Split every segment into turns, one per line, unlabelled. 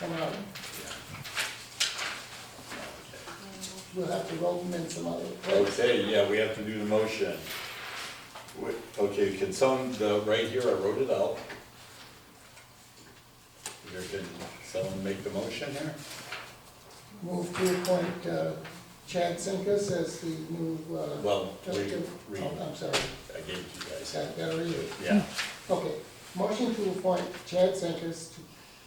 come out. We'll have to roll them in some other place.
Okay, yeah, we have to do the motion. Wait, Okay, can someone, the, right here, I wrote it out. Here, can someone make the motion here?
Move to appoint uh, Chad Sinkus as the new, uh.
Well, we-
trustee.
we-
Oh, I'm sorry,
I gave it to you guys.
Chad, that are you?
Yeah,
Okay, motion to appoint Chad Sinkus to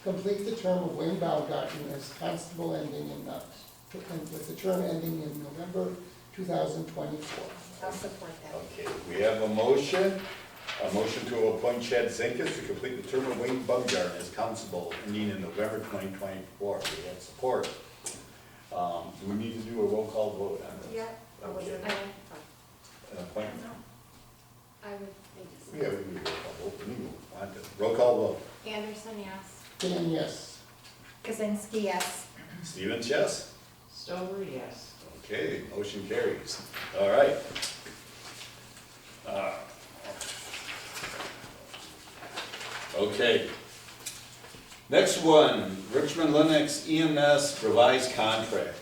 complete the term of Wayne Baumgarten as constable ending in, uh, and with the term ending in November two thousand twenty-four.
I'll support that.
okay, we have a motion, a motion to appoint Chad Zinkus to complete the term of Wayne Bumgarner as constable ending in November twenty twenty-four. We have support. Um, do we need to do a roll call vote on this?
Yeah, I was in,
Okay.
I
An appointment?
would, I
Yeah, we do a roll call vote, we want to, roll call vote.
just. Anderson, yes.
Dan, yes.
Kazinsky, yes.
Stevens, yes?
Stover, yes.
Okay, motion carries. All right. Uh, Okay. Next one, Richmond Lennox EMS revised contract.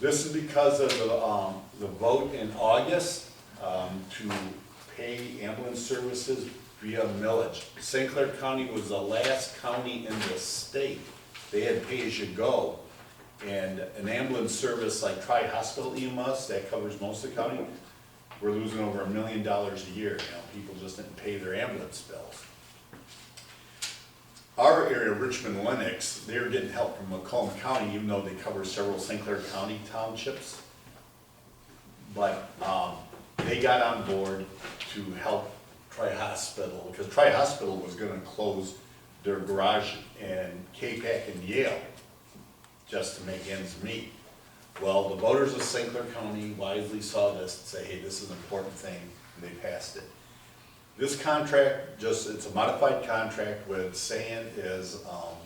This is because of the, um, the vote in August, um, to pay ambulance services via millage. St. Clair County was the last county in the state, they had pay-as-you-go. And an ambulance service like Tri-Hospital EMS, that covers most of the county, we're losing over a million dollars a year, you know, people just didn't pay their ambulance bills. Our area, Richmond Lennox, they're getting help from Macomb County, even though they cover several St. Clair County townships. But, um, they got on board to help Tri-Hospital, because Tri-Hospital was gonna close their garage in K-Pac and Yale just to make ends meet. Well, the voters of St. Clair County wisely saw this and say, hey, this is an important thing, and they passed it. This contract, just, it's a modified contract with saying is, um,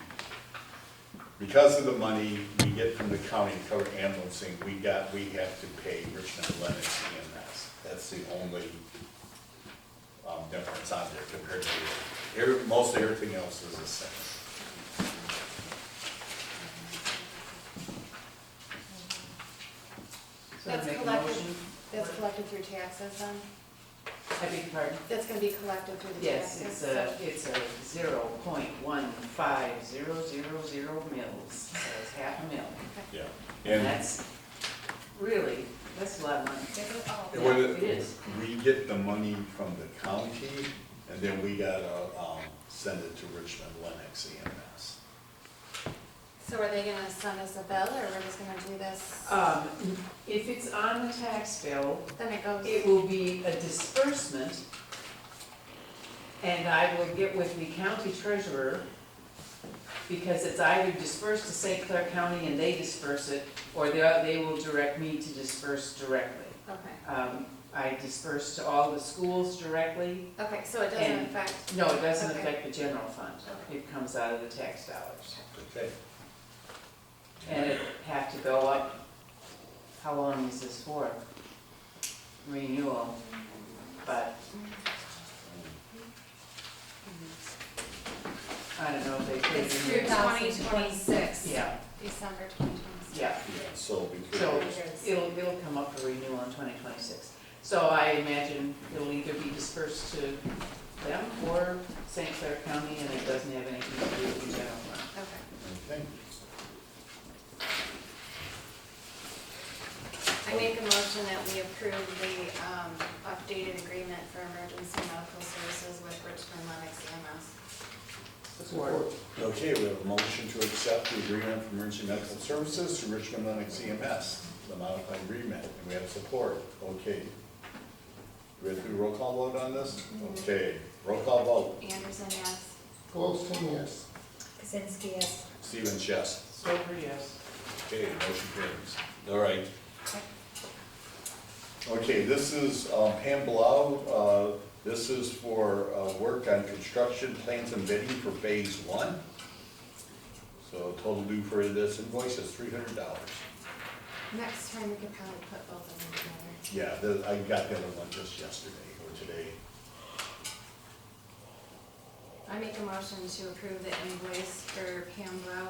because of the money we get from the county to cover ambulancing, we got, we have to pay Richmond Lennox EMS. That's the only, um, difference on there compared to, every- most everything else is the same.
So
That's
make a
collected,
motion.
that's collected through taxes then?
I beg your pardon?
That's gonna be collected through the
Yes,
taxes?
it's uh, a, it's a zero point one five zero zero zero mils, so it's half a mil.
Yeah.
And
And
that's really, that's a lot of money.
It
Yeah,
was-
it is.
We get the money from the county, and then we gotta, um, send it to Richmond Lennox EMS.
So are they gonna send us a bill or we're just gonna do this?
Um, if it's on the tax bill,
Then it goes,
It will be a disbursement, and I will get with the county treasurer, because it's either dispersed to St. Clair County and they disperse it, or they, they will direct me to disperse directly.
okay,
Um, I disperse to all the schools directly.
okay, so it doesn't
And-
affect,
No, it doesn't
Okay.
affect the general fund.
Okay.
It comes out of the tax dollars.
Okay.
And it have to go up, how long is this for? Renewal, but I don't know if they pay
it's through
the year.
twenty twenty-six,
Yeah,
December twenty twenty-six.
yeah,
Yeah, so
so
between,
it'll, it'll come up for renewal in twenty twenty-six. So I imagine it'll either be dispersed to them or St. Clair County, and it doesn't have anything to do with the general fund.
okay,
Okay. I make a motion that we approve the um, updated agreement for emergency medical services with Richmond Lennox E EMS.
Support.
Okay, we have a motion to accept the agreement for emergency medical services to Richmond Lennox EMS, the modified agreement, and we have support, okay. Do we have to do roll call vote on this? Okay, roll call vote,
Anderson, yes.
Goldston, yes.
Kazinsky, yes.
Stevens, yes.
Stover, yes.
Okay, motion carries. All right. Okay, this is um, Pam Blau. Uh, This is for uh, work on construction plans and bidding for phase one. So total due for this invoice is three hundred dollars.
Next time we could probably put both of them together.
Yeah, the- I got the other one just yesterday or today.
I make a motion to approve the invoice for Pam Blau